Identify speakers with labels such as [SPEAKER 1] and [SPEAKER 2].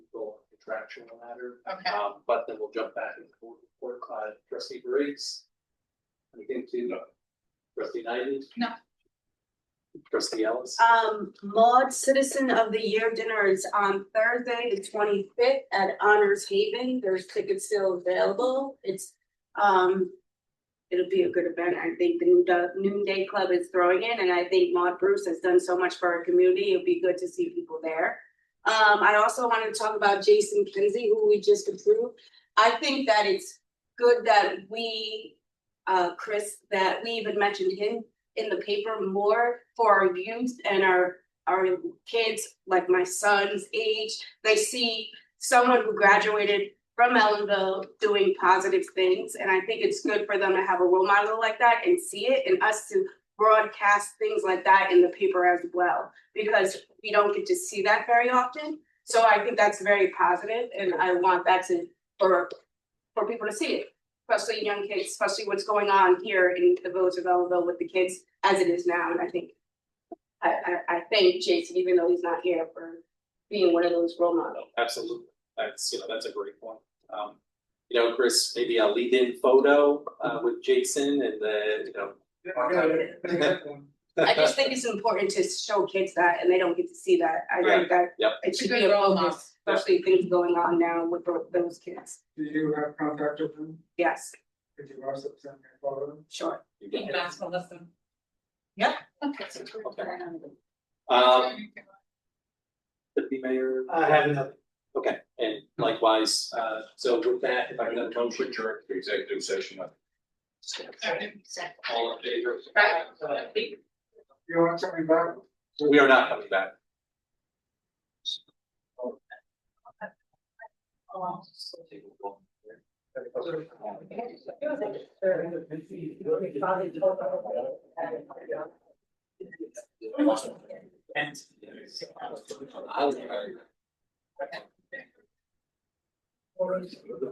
[SPEAKER 1] action on that, or,
[SPEAKER 2] Okay,
[SPEAKER 1] um, but then we'll jump back and we'll report on trustee Briggs. Anything to trustee Knighton?
[SPEAKER 2] No.
[SPEAKER 1] Trustee Ellis?
[SPEAKER 3] Um, Maud Citizen of the Year dinner is on Thursday, the twenty fifth at Honors Haven. There's tickets still available. It's, um. It'll be a good event. I think the Noon- the Noonday Club is throwing in, and I think Maud Bruce has done so much for our community. It'll be good to see people there. Um, I also wanted to talk about Jason Kinsey, who we just approved. I think that it's good that we, uh, Chris, that we even mentioned him in the paper more for our youth and our our kids, like my son's age. They see someone who graduated from Ellenville doing positive things, and I think it's good for them to have a role model like that and see it, and us to broadcast things like that in the paper as well, because we don't get to see that very often. So I think that's very positive, and I want that to for for people to see it especially young kids, especially what's going on here in the village of Ellenville with the kids as it is now, and I think. I I I thank Jason, even though he's not here for being one of those role models.
[SPEAKER 1] Absolutely, that's, you know, that's a great point. Um, you know, Chris, maybe a lead-in photo, uh, with Jason and the, you know.
[SPEAKER 3] I just think it's important to show kids that and they don't get to see that. I think that.
[SPEAKER 1] Yep.
[SPEAKER 3] It should
[SPEAKER 2] It's a
[SPEAKER 3] be
[SPEAKER 2] good
[SPEAKER 3] a
[SPEAKER 2] role model.
[SPEAKER 3] focus, especially things going on now with tho- those kids.
[SPEAKER 4] Do you have contact with them?
[SPEAKER 3] Yes,
[SPEAKER 4] Could you also send me a photo?
[SPEAKER 3] sure.
[SPEAKER 1] You
[SPEAKER 2] you
[SPEAKER 1] get it.
[SPEAKER 2] can ask Melissa. Yeah. Okay.
[SPEAKER 1] Okay. Um, deputy mayor,
[SPEAKER 4] I have another.
[SPEAKER 1] okay, and likewise, uh, so with that, if I
[SPEAKER 5] I'm
[SPEAKER 1] can
[SPEAKER 5] gonna
[SPEAKER 1] have a
[SPEAKER 5] come
[SPEAKER 1] motion.
[SPEAKER 5] with your executive session.
[SPEAKER 1] All in favor?
[SPEAKER 2] Right.
[SPEAKER 4] You want something back?
[SPEAKER 1] We are not coming back. I was-